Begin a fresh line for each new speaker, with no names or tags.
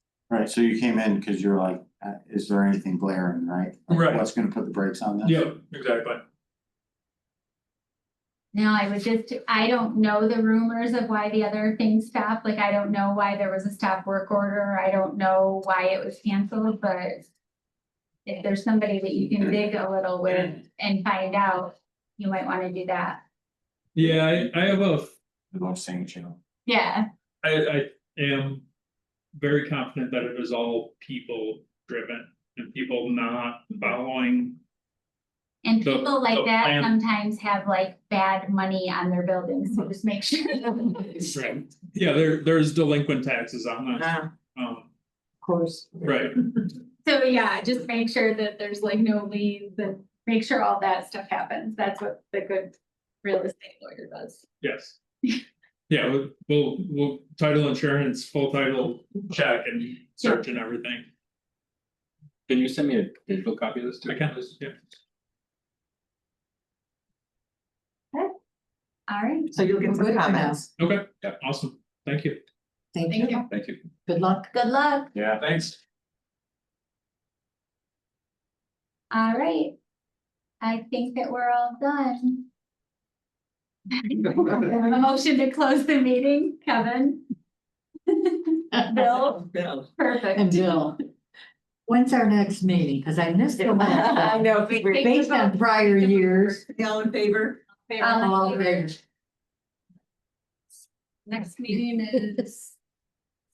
Right, so you came in because you're like, uh, is there anything glaring, right? Like,
Right.
What's gonna put the brakes on this?
Yeah, exactly.
Now, I was just, I don't know the rumors of why the other thing stopped, like, I don't know why there was a stop work order, I don't know why it was canceled, but. If there's somebody that you can dig a little with and find out, you might wanna do that,
Yeah, I, I have a,
I love saying channel.
yeah,
I, I am very confident that it is all people driven and people not following.
and
So-
people like
so I
that
am-
sometimes have like bad money on their buildings, so just make sure.
Right. Yeah, there, there's delinquent taxes on that,
Ah,
um,
of course.
right,
So, yeah, just make sure that there's like no liens and make sure all that stuff happens, that's what the good real estate lawyer does.
yes. Yeah, we'll- we'll, we'll title insurance, full title check and search and everything,
Can you send me a digital copy of this too?
I can, yeah.
All right.
So you'll get some
Good to know.
comments.
Okay, yeah, awesome, thank you.
Thank
Thank
you.
you.
Thank you.
Good luck.
Good luck.
Yeah.
Thanks.
All right. I think that we're all done. A motion to close the meeting, Kevin? Bill?
Bill.
Perfect.
And Bill. When's our next meeting? Because I missed the last
I
one.
know, we
We're Based on prior years.
all in favor.
Um,
All in favor.
Next meeting is